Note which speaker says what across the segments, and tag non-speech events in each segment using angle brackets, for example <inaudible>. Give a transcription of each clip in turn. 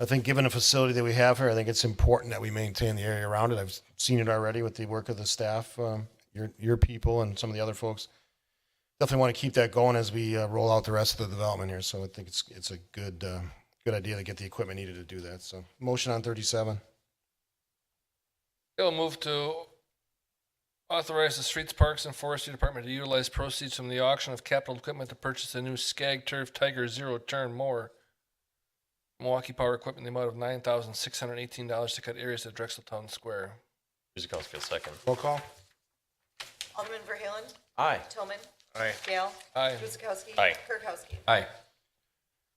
Speaker 1: I think given the facility that we have here, I think it's important that we maintain the area around it. I've seen it already with the work of the staff, um, your, your people and some of the other folks. Definitely want to keep that going as we uh, roll out the rest of the development here. So I think it's, it's a good, uh, good idea to get the equipment needed to do that. So motion on 37.
Speaker 2: It'll move to authorize the Streets, Parks, and Forestry Department to utilize proceeds from the auction of capital equipment to purchase a new Skag Turf Tiger Zero Turn mower. Milwaukee Power Equipment, in the amount of nine thousand six hundred eighteen dollars to cut areas at Drexel Town Square.
Speaker 3: Kuzikowski, second.
Speaker 1: Roll call.
Speaker 4: Alderman Verhaelen.
Speaker 3: Aye.
Speaker 4: Tillman.
Speaker 3: Aye.
Speaker 4: Gale.
Speaker 2: Aye.
Speaker 4: Guzekowski.
Speaker 3: Aye.
Speaker 4: Kirkowski.
Speaker 3: Aye.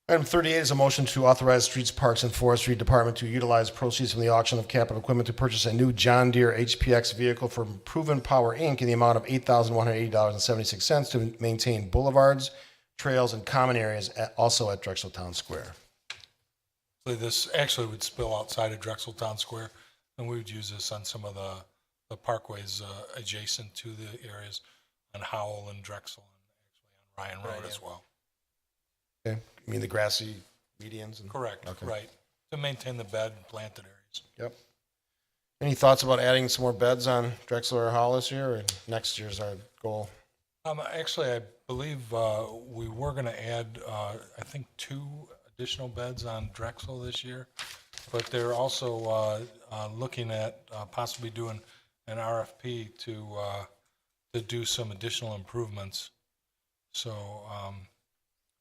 Speaker 1: Item 38 is a motion to authorize Streets, Parks, and Forestry Department to utilize proceeds from the auction of capital equipment to purchase a new John Deere HPX vehicle from Proven Power, Inc. in the amount of $8,180.76 to maintain boulevards, trails, and common areas, at- also at Drexel Town Square.
Speaker 5: So This actually would spill outside of Drexel Town Square, and we would use this on some of the, the parkways uh, adjacent to the areas on Howell and Drexel, and actually on Ryan Road as well.
Speaker 1: Okay. You mean the grassy medians? and-
Speaker 5: Correct,
Speaker 1: Okay.
Speaker 5: right, to maintain the bed and planted areas.
Speaker 1: Yep. Any thoughts about adding some more beds on Drexel or Hall this year, or next year's our goal?
Speaker 5: Um, actually, I believe, uh, we were gonna add, uh, I think, two additional beds on Drexel this year. But they're also, uh, uh, looking at uh, possibly doing an RFP to, uh, to do some additional improvements. So, um,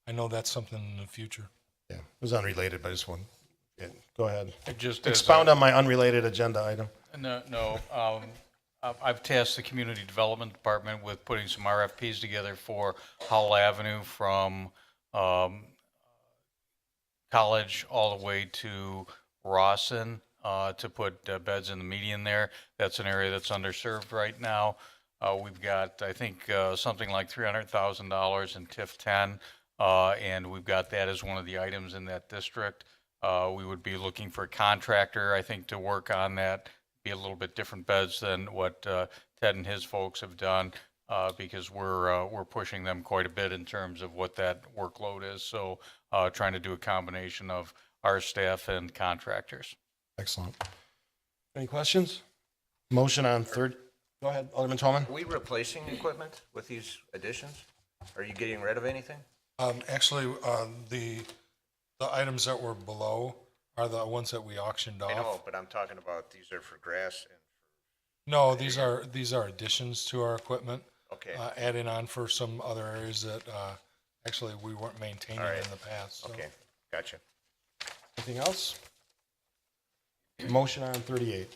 Speaker 5: I know that's something in the future.
Speaker 1: Yeah, it was unrelated, but I just want, yeah, go ahead.
Speaker 6: Just as
Speaker 1: Expound on my unrelated agenda item.
Speaker 6: a- No, no. um, I've- I've tasked the Community Development Department with putting some RFPs together for Howell Avenue from um, College all the way to Rawson uh, to put uh, beds in the median there. That's an area that's underserved right now. Uh, We've got, I think, uh, something like $300,000 in TIF 10, uh, and we've got that as one of the items in that district. Uh, We would be looking for a contractor, I think, to work on that, be a little bit different beds than what uh, Ted and his folks have done uh, because we're, uh, we're pushing them quite a bit in terms of what that workload is. So uh, trying to do a combination of our staff and contractors.
Speaker 1: Excellent. Any questions? Motion on third, go ahead, Alderman Tallman.
Speaker 7: Are we replacing equipment with these additions? Are you getting rid of anything?
Speaker 5: Um, actually, uh, the, the items that were below are the ones that we auctioned off.
Speaker 7: I know, but I'm talking about these are for grass and,
Speaker 5: No, these are, these are additions to our equipment.
Speaker 7: okay,
Speaker 5: uh, adding on for some other areas that uh, actually we weren't maintaining
Speaker 7: All right.
Speaker 5: in the past. so.
Speaker 7: okay, gotcha.
Speaker 1: Anything else? Motion on thirty-eight.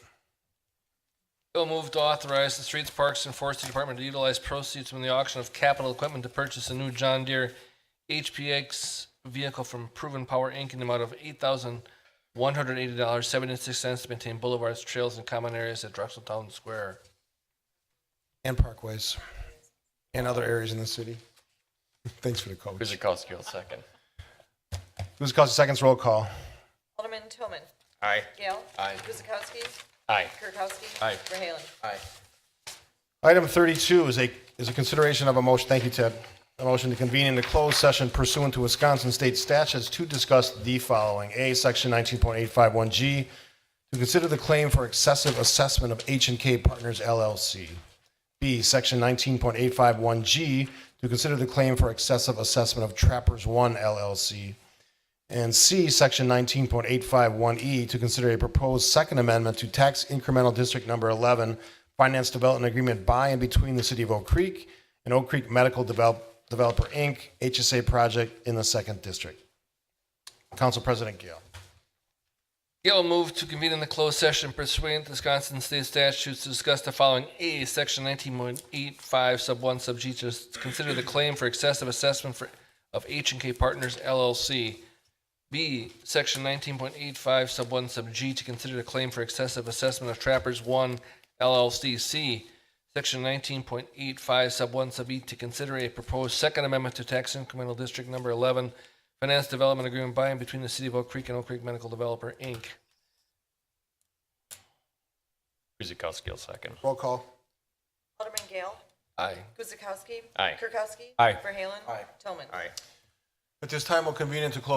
Speaker 2: It'll move to authorize the Streets, Parks, and Forestry Department to utilize proceeds from the auction of capital equipment to purchase a new John Deere HPX vehicle from Proven Power Inc. in the amount of eight thousand one hundred eighty dollars seventy-six cents to maintain boulevards, trails, and common areas at Drexel Town Square.
Speaker 1: And parkways and other areas in the city. <laughs> Thanks for the call. Who's
Speaker 3: Kuzikowski will second.
Speaker 1: the cost seconds roll call?
Speaker 4: Alderman Tillman.
Speaker 7: Aye.
Speaker 4: Gale.
Speaker 3: Aye.
Speaker 4: Guzekowski.
Speaker 3: Aye.
Speaker 4: Kirkowski.
Speaker 3: Aye.
Speaker 4: Verhaelen.
Speaker 7: Aye.
Speaker 1: Item thirty-two is a, is a consideration of a motion, thank you, Ted. A motion to convene into closed session pursuant to Wisconsin state statutes to discuss the following. A, section nineteen point eight five one G, to consider the claim for excessive assessment of H and K Partners LLC. B, section nineteen point eight five one G, to consider the claim for excessive assessment of Trappers One LLC. And C, Section 19.851E, E, to consider a proposed second amendment to tax incremental District Number 11 Finance Development Agreement by and between the City of Oak Creek and Oak Creek Medical Develop- Developer, Inc., HSA project in the Second District. Council President Gale.
Speaker 2: Gail move to convene in the closed session pursuant to Wisconsin State statutes to discuss the following. A, section nineteen point eight five sub one sub G to consider the claim for excessive assessment for, of H and K Partners LLC. B, section nineteen point eight five sub one sub G to consider the claim for excessive assessment of Trappers One LLC. C, section nineteen point eight five sub one sub E to consider a proposed second amendment to tax incremental district number eleven finance development agreement by and between the city of Oak Creek and Oak Creek Medical Developer, Inc.
Speaker 3: Kuzikowski will second.
Speaker 1: Roll call.
Speaker 4: Alderman Gale.
Speaker 3: Aye.
Speaker 4: Guzekowski.
Speaker 3: Aye.
Speaker 4: Kirkowski.
Speaker 3: Aye.
Speaker 4: Verhaelen. Tillman.
Speaker 7: Aye.
Speaker 1: At this time, we'll convene into closed